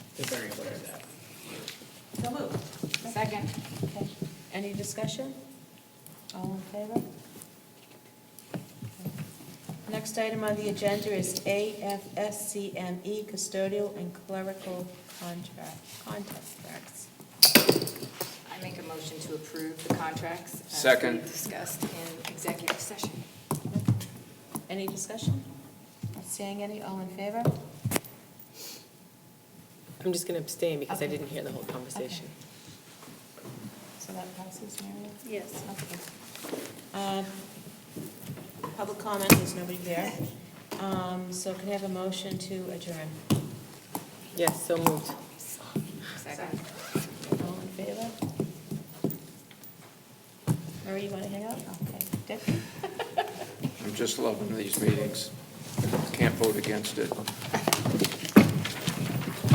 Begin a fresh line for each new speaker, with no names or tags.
very aware of that.
So moved.
Second.
Okay. Any discussion? All in favor? Next item on the agenda is AFSCME E, custodial and clerical contract, contracts.
I make a motion to approve the contracts. as
Second.
we Discussed in executive session.
Any discussion? Not seeing any, all in favor?
I'm just going to abstain because I
Okay.
didn't hear the whole conversation.
So that passes, Mary?
Yes.
Okay. Um, Public comment, there's nobody there. Um, So can I have a motion to adjourn?
Yes, so moved.
Second.
All in favor? Mary, you want to hang up? Okay. Dick?
I'm just loving these meetings. Can't vote against it.